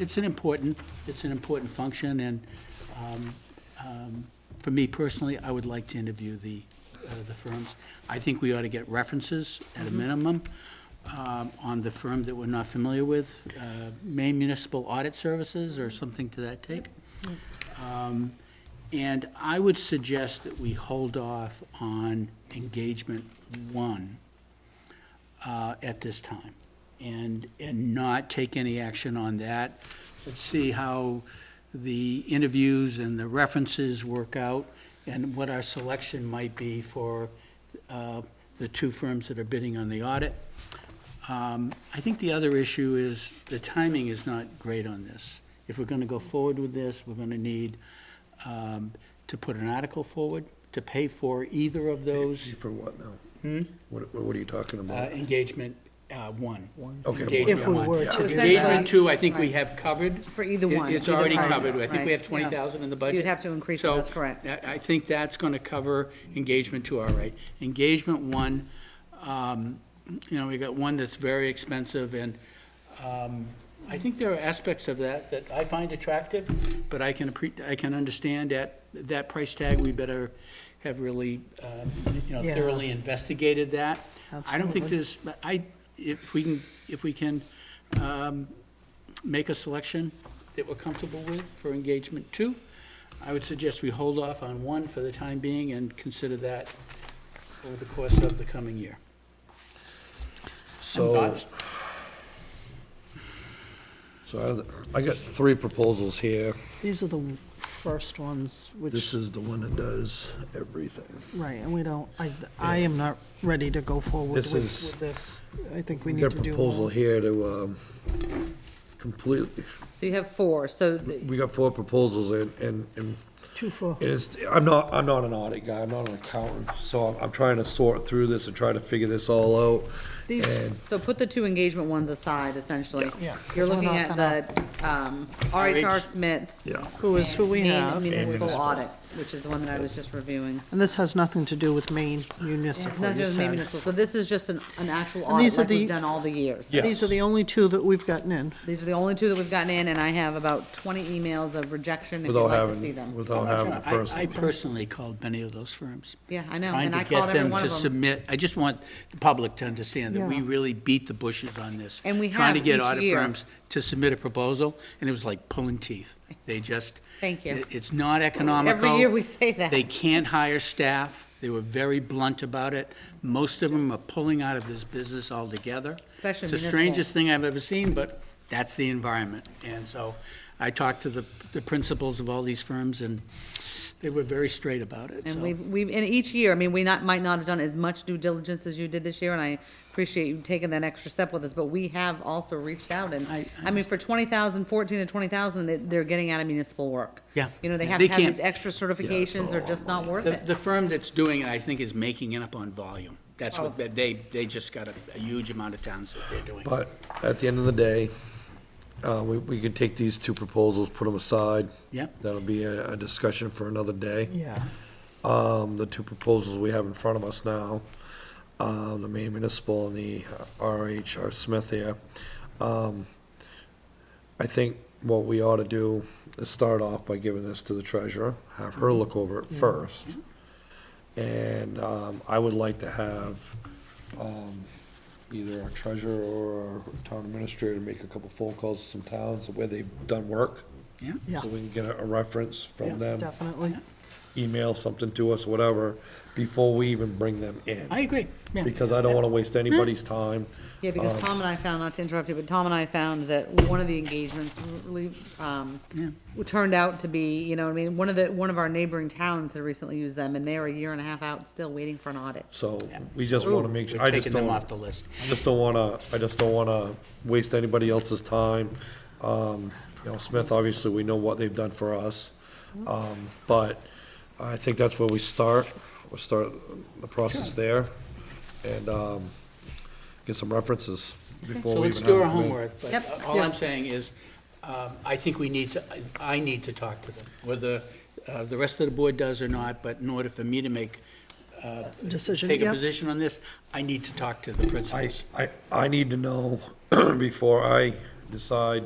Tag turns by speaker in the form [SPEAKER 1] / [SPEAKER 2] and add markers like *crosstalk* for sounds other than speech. [SPEAKER 1] it's an important, it's an important function, and um, um, for me personally, I would like to interview the, uh, the firms. I think we ought to get references at a minimum um, on the firm that we're not familiar with, uh, Maine Municipal Audit Services or something to that take. Um, And I would suggest that we hold off on engagement one uh, at this time, and, and not take any action on that. Let's see how the interviews and the references work out, and what our selection might be for uh, the two firms that are bidding on the audit. Um, I think the other issue is, the timing is not great on this. If we're going to go forward with this, we're going to need um, to put an article forward, to pay for either of those
[SPEAKER 2] For what now? What, what are you talking
[SPEAKER 1] uh,
[SPEAKER 2] about?
[SPEAKER 1] engagement uh, one.
[SPEAKER 2] Okay,
[SPEAKER 1] Engagement
[SPEAKER 3] If we
[SPEAKER 1] one.
[SPEAKER 3] were
[SPEAKER 2] Yeah.
[SPEAKER 3] to.
[SPEAKER 1] Engagement two, I think we have covered.
[SPEAKER 3] For either
[SPEAKER 1] It-
[SPEAKER 3] one,
[SPEAKER 1] It's
[SPEAKER 3] either
[SPEAKER 1] already
[SPEAKER 3] one,
[SPEAKER 1] covered. I think we have
[SPEAKER 3] right.
[SPEAKER 1] 20,000 in the budget.
[SPEAKER 3] You'd have to increase it,
[SPEAKER 1] So,
[SPEAKER 3] that's correct.
[SPEAKER 1] I I think that's going to cover engagement two, all right. Engagement one, um, you know, we got one that's very expensive, and um, I think there are aspects of that that I find attractive, but I can, appre- I can understand at that price tag, we better have really, um, you know,
[SPEAKER 3] Yeah.
[SPEAKER 1] thoroughly investigated that. I don't think there's, I, if we can, if we can um, make a selection that we're comfortable with for engagement two, I would suggest we hold off on one for the time being and consider that over the course of the coming year. Some
[SPEAKER 2] so,
[SPEAKER 1] thoughts?
[SPEAKER 2] so I, I got three proposals here.
[SPEAKER 4] These are the first ones,
[SPEAKER 2] This
[SPEAKER 4] which,
[SPEAKER 2] is the one that does everything.
[SPEAKER 4] right, and we don't, I, I am not ready to go forward
[SPEAKER 2] This
[SPEAKER 4] with,
[SPEAKER 2] is-
[SPEAKER 4] with this. I think we
[SPEAKER 2] We
[SPEAKER 4] need
[SPEAKER 2] got
[SPEAKER 4] to
[SPEAKER 2] a
[SPEAKER 4] do
[SPEAKER 2] proposal
[SPEAKER 4] more.
[SPEAKER 2] here to, um, completely,
[SPEAKER 3] So you have four, so the-
[SPEAKER 2] we got four proposals and, and, and
[SPEAKER 4] Two for,
[SPEAKER 2] It is, I'm not, I'm not an audit guy, I'm not an accountant, so I'm, I'm trying to sort through this and try to figure this all out.
[SPEAKER 4] These-
[SPEAKER 2] And
[SPEAKER 3] so put the two engagement ones aside, essentially.
[SPEAKER 4] Yeah,
[SPEAKER 3] You're
[SPEAKER 4] 'cause we're
[SPEAKER 3] looking
[SPEAKER 4] not
[SPEAKER 3] at the um, RHR Smith.
[SPEAKER 2] Yeah.
[SPEAKER 4] who is who we
[SPEAKER 3] Maine
[SPEAKER 4] have,
[SPEAKER 3] Municipal
[SPEAKER 2] Municipal.
[SPEAKER 3] Audit, which is one that I was just reviewing.
[SPEAKER 4] and this has nothing to do with Maine municipal,
[SPEAKER 3] Not
[SPEAKER 4] you
[SPEAKER 3] just Maine
[SPEAKER 4] said.
[SPEAKER 3] Municipal, so this is just an, an actual
[SPEAKER 4] And
[SPEAKER 3] audit
[SPEAKER 4] these are
[SPEAKER 3] like we've
[SPEAKER 4] the-
[SPEAKER 3] done all the years.
[SPEAKER 2] Yeah.
[SPEAKER 4] These are the only two that we've gotten in.
[SPEAKER 3] These are the only two that we've gotten in, and I have about twenty emails of rejection if you'd
[SPEAKER 2] without
[SPEAKER 3] like to see
[SPEAKER 2] having,
[SPEAKER 3] them.
[SPEAKER 2] without having a
[SPEAKER 1] I- I
[SPEAKER 2] person.
[SPEAKER 1] personally called many of those firms.
[SPEAKER 3] Yeah, I know, and I
[SPEAKER 1] Trying
[SPEAKER 3] called
[SPEAKER 1] to
[SPEAKER 3] every
[SPEAKER 1] get them
[SPEAKER 3] one
[SPEAKER 1] to
[SPEAKER 3] of them.
[SPEAKER 1] submit, I just want the public to understand that we
[SPEAKER 4] Yeah.
[SPEAKER 1] really beat the bushes on this.
[SPEAKER 3] And we
[SPEAKER 1] Trying to
[SPEAKER 3] have
[SPEAKER 1] get
[SPEAKER 3] each
[SPEAKER 1] audit
[SPEAKER 3] year.
[SPEAKER 1] firms to submit a proposal, and it was like pulling teeth. They just.
[SPEAKER 3] Thank you.
[SPEAKER 1] it- It's not economical.
[SPEAKER 3] Every year we say that.
[SPEAKER 1] They can't hire staff. They were very blunt about it. Most of them are pulling out of this business altogether.
[SPEAKER 3] Especially
[SPEAKER 1] It's the
[SPEAKER 3] municipal.
[SPEAKER 1] strangest thing I've ever seen, but that's the environment. And so I talked to the, the principals of all these firms, and they were very straight about it, so.
[SPEAKER 3] And we've, we've, and each year, I mean, we not, might not have done as much due diligence as you did this year, and I appreciate you taking that extra step with us, but we have also reached out, and,
[SPEAKER 1] I- I
[SPEAKER 3] I mean, for twenty thousand, fourteen to twenty thousand, they, they're getting out of municipal work.
[SPEAKER 1] Yeah.
[SPEAKER 3] You know, they
[SPEAKER 1] Yeah,
[SPEAKER 3] have
[SPEAKER 1] they
[SPEAKER 3] to have these
[SPEAKER 1] can't-
[SPEAKER 3] extra certifications, they're just not worth
[SPEAKER 1] The,
[SPEAKER 3] it.
[SPEAKER 1] the firm that's doing it, I think, is making it up on volume. That's
[SPEAKER 3] Oh.
[SPEAKER 1] what, they, they just got a, a huge amount of towns that they're doing.
[SPEAKER 2] But at the end of the day, uh, we, we can take these two proposals, put them aside.
[SPEAKER 1] Yep.
[SPEAKER 2] That'll be a, a discussion for another day.
[SPEAKER 4] Yeah.
[SPEAKER 2] Um, the two proposals we have in front of us now, um, the Maine Municipal and the RHR Smith here. Um, I think what we ought to do is start off by giving this to the treasurer, have her look over it first. And, um, I would like to have, um, either our treasurer or our town administrator make a couple phone calls to some towns where they've done work.
[SPEAKER 1] Yeah?
[SPEAKER 4] Yeah.
[SPEAKER 2] So we can get a a reference
[SPEAKER 4] Yeah,
[SPEAKER 2] from them
[SPEAKER 4] Definitely.
[SPEAKER 2] email something to us, whatever, before we even bring them
[SPEAKER 1] I
[SPEAKER 2] in.
[SPEAKER 1] agree, yeah.
[SPEAKER 2] Because I don't wanna waste anybody's time.
[SPEAKER 3] Yeah, because
[SPEAKER 1] uh,
[SPEAKER 3] Tom and I found, not to interrupt you, but Tom and I found that one of the engagements really, um,
[SPEAKER 1] Yeah.
[SPEAKER 3] turned out to be, you know, what I mean, one of the, one of our neighboring towns had recently used them, and they're a year and a half out, still waiting for an audit.
[SPEAKER 2] So we just wanna make sure, I
[SPEAKER 1] We're
[SPEAKER 2] just
[SPEAKER 1] taking them
[SPEAKER 2] don't,
[SPEAKER 1] off the
[SPEAKER 2] I
[SPEAKER 1] list.
[SPEAKER 2] just don't wanna, I just don't wanna waste anybody else's time. Um, you know, Smith, obviously, we know what they've done for us. Um, but I think that's where we start. We'll start the process there and, um, get some references before
[SPEAKER 1] So
[SPEAKER 2] we even
[SPEAKER 1] let's
[SPEAKER 2] have.
[SPEAKER 1] do our
[SPEAKER 2] them in.
[SPEAKER 1] homework, but
[SPEAKER 3] Yep.
[SPEAKER 1] all I'm
[SPEAKER 3] Yeah.
[SPEAKER 1] saying is, um, I think we need to, I- I need to talk to them, whether uh, the rest of the board does or not, but in order for me to make, uh,
[SPEAKER 4] Decision,
[SPEAKER 1] Take a
[SPEAKER 4] yep.
[SPEAKER 1] position on this, I need to talk to the
[SPEAKER 2] I,
[SPEAKER 1] principals.
[SPEAKER 2] *clears throat* I, I need to know before I decide